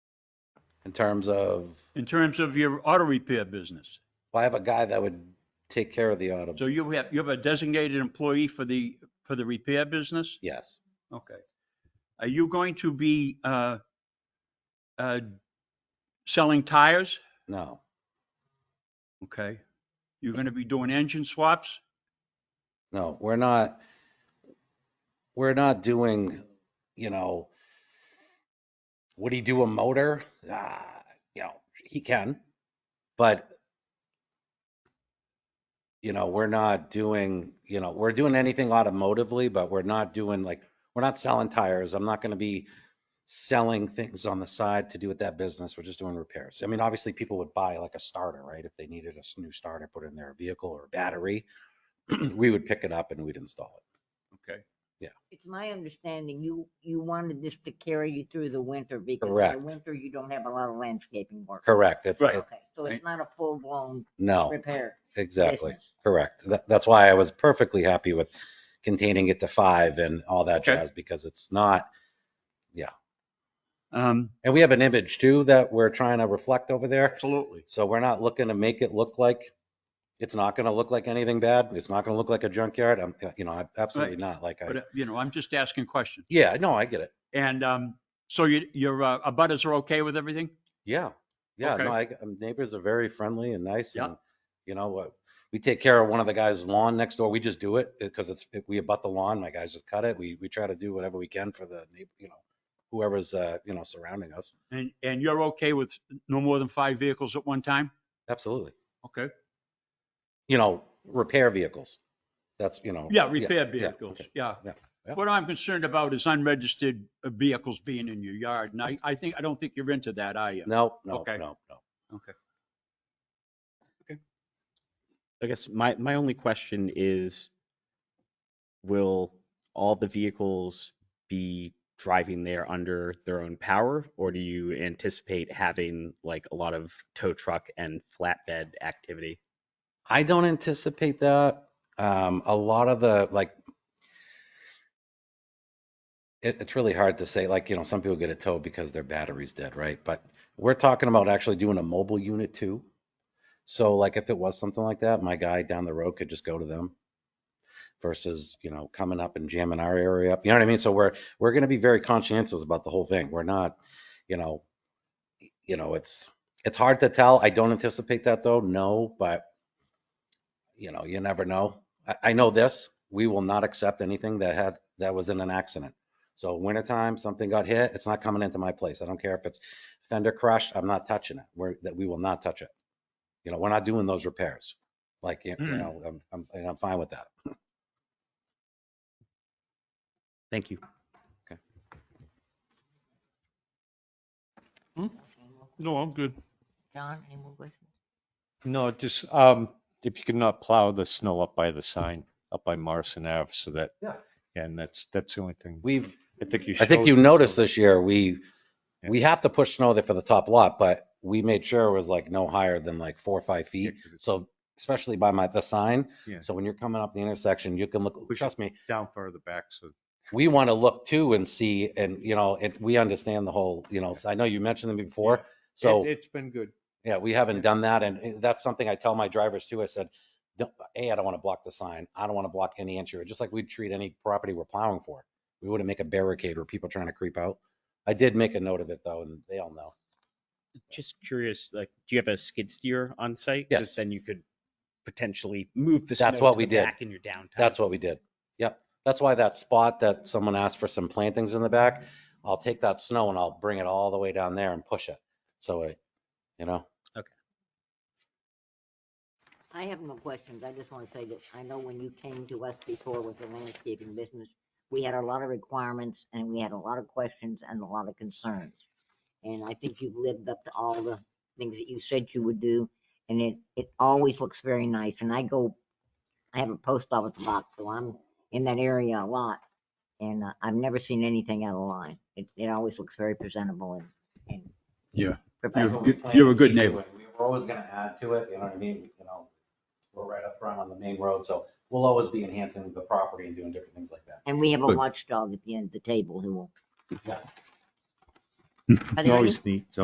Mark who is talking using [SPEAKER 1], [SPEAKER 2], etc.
[SPEAKER 1] in terms of,
[SPEAKER 2] in terms of your auto repair business.
[SPEAKER 1] well, I have a guy that would take care of the auto.
[SPEAKER 2] So you have, you have a designated employee for the, for the repair business?
[SPEAKER 1] Yes.
[SPEAKER 2] Okay. Are you going to be uh, uh, selling tires?
[SPEAKER 1] No.
[SPEAKER 2] Okay. You're going to be doing engine swaps?
[SPEAKER 1] No, we're not, we're not doing, you know, would he do a motor? Ah, you know, he can, but you know, we're not doing, you know, we're doing anything automotively, but we're not doing like, we're not selling tires. I'm not going to be selling things on the side to do with that business. We're just doing repairs. I mean, obviously people would buy like a starter, right? If they needed a s- new starter, put in their vehicle or battery, we would pick it up and we'd install it.
[SPEAKER 2] Okay.
[SPEAKER 3] It's my understanding you, you wanted this to carry you through the winter because in
[SPEAKER 1] Correct.
[SPEAKER 3] the winter you don't have a lot of landscaping work.
[SPEAKER 1] Correct. It's,
[SPEAKER 2] Right.
[SPEAKER 1] it-
[SPEAKER 3] Okay, so it's not a full-blown
[SPEAKER 1] no,
[SPEAKER 3] repair.
[SPEAKER 1] exactly.
[SPEAKER 3] business.
[SPEAKER 1] Correct. That, that's why I was perfectly happy with containing it to five and all that
[SPEAKER 2] Okay.
[SPEAKER 1] jazz because it's not,
[SPEAKER 2] Um,
[SPEAKER 1] and we have an image too that we're trying to reflect over there.
[SPEAKER 2] Absolutely.
[SPEAKER 1] So we're not looking to make it look like, it's not going to look like anything bad. It's not going to look like a junkyard. I'm, you know, I'm absolutely not like,
[SPEAKER 2] But,
[SPEAKER 1] I,
[SPEAKER 2] uh, you know, I'm just asking questions.
[SPEAKER 1] yeah, no, I get it.
[SPEAKER 2] And um, so your, your uh, abutters are okay with everything?
[SPEAKER 1] Yeah, yeah,
[SPEAKER 2] Okay.
[SPEAKER 1] no, I, um, neighbors are very friendly and nice
[SPEAKER 2] Yeah.
[SPEAKER 1] and, you know, what, we take care of one of the guys' lawn next door. We just do it because it's, if we abut the lawn, my guys just cut it. We, we try to do whatever we can for the, neigh- you know, whoever's, uh, you know, surrounding us.
[SPEAKER 2] And, and you're okay with no more than five vehicles at one time?
[SPEAKER 1] Absolutely.
[SPEAKER 2] Okay.
[SPEAKER 1] You know, repair vehicles. That's, you know.
[SPEAKER 2] Yeah, repair
[SPEAKER 1] Oh, yeah,
[SPEAKER 2] vehicles,
[SPEAKER 1] okay.
[SPEAKER 2] yeah.
[SPEAKER 1] Yeah, yeah.
[SPEAKER 2] What I'm concerned about is unregistered uh, vehicles being in your yard, and I, I think, I don't think you're into that, are you?
[SPEAKER 1] No, no,
[SPEAKER 2] Okay.
[SPEAKER 1] no, no.
[SPEAKER 2] Okay.
[SPEAKER 4] I guess my, my only question is, will all the vehicles be driving there under their own power? Or do you anticipate having like a lot of tow truck and flatbed activity?
[SPEAKER 1] I don't anticipate that. Um, a lot of the like, it, it's really hard to say. Like, you know, some people get a tow because their battery's dead, right? But we're talking about actually doing a mobile unit too. So, like, if it was something like that, my guy down the road could just go to them versus, you know, coming up and jamming our area up. You know what I mean? So we're we're going to be very conscientious about the whole thing. We're not, you know, you know, it's it's hard to tell. I don't anticipate that though. No, but you know, you never know. I, I know this, we will not accept anything that had, that was in an accident. So wintertime, something got hit, it's not coming into my place. I don't care if it's fender crushed, I'm not touching it. We're, that we will not touch it. You know, we're not doing those repairs. Like, you you
[SPEAKER 2] Hmm.
[SPEAKER 1] know, I'm, I'm, and I'm fine with that.
[SPEAKER 4] Thank you.
[SPEAKER 5] No, I'm good.
[SPEAKER 3] John, any more questions?
[SPEAKER 6] No, just, um, if you could not plow the snow up by the sign, up by Morrison Ave, so that.
[SPEAKER 1] Yeah.
[SPEAKER 6] And that's, that's the only thing.
[SPEAKER 1] We've,
[SPEAKER 6] I think you.
[SPEAKER 1] I think
[SPEAKER 6] showed-
[SPEAKER 1] you noticed this year, we,
[SPEAKER 6] Yeah.
[SPEAKER 1] we have to push snow there for the top lot, but we made sure it was like no higher than like four or five
[SPEAKER 6] Yeah,
[SPEAKER 1] feet.
[SPEAKER 6] 'cause it's
[SPEAKER 1] So especially by my, the sign.
[SPEAKER 6] Yeah.
[SPEAKER 1] So when you're coming up the intersection, you can look,
[SPEAKER 6] Push it.
[SPEAKER 1] trust me,
[SPEAKER 6] Down further back, so.
[SPEAKER 1] we want to look too and see, and you know, and we understand the whole, you know, I know you mentioned them before. So,
[SPEAKER 6] It- It's been good.
[SPEAKER 1] yeah, we haven't done that. And eh, that's something I tell my drivers too. I said, "Don't- A, I don't want to block the sign. I don't want to block any entry, just like we'd treat any property we're plowing for. We wouldn't make a barricade where people trying to creep out. I did make a note of it though, and they all know.
[SPEAKER 4] Just curious, like, do you have a skid steer on site? 'Cause
[SPEAKER 1] Yes.
[SPEAKER 4] Then you could potentially move the snow
[SPEAKER 1] That's what
[SPEAKER 4] to
[SPEAKER 1] we
[SPEAKER 4] the
[SPEAKER 1] did.
[SPEAKER 4] back in your downtime.
[SPEAKER 1] That's what we did. Yep. That's why that spot that someone asked for some plantings in the back, I'll take that snow and I'll bring it all the way down there and push it. So it, you know,
[SPEAKER 3] I have no questions. I just want to say that I know when you came to us before with the landscaping business, we had a lot of requirements and we had a lot of questions and a lot of concerns. And I think you've lived up to all the things that you said you would do. And it, it always looks very nice. And I go, I have a post office box, so I'm in that area a lot. And uh, I've never seen anything out of line. It, it always looks very presentable and, and.
[SPEAKER 2] Yeah.
[SPEAKER 3] professional.
[SPEAKER 2] good- you're a good neighbor.
[SPEAKER 1] We were always gonna add to it, you know what I mean? You know, we're right up front on the main road, so we'll always be enhancing the property and doing different things like that.
[SPEAKER 3] And we have a
[SPEAKER 2] Good.
[SPEAKER 3] watchdog at the end of the table who will.
[SPEAKER 1] Yeah.
[SPEAKER 6] Oh,
[SPEAKER 3] Are there any
[SPEAKER 6] neat.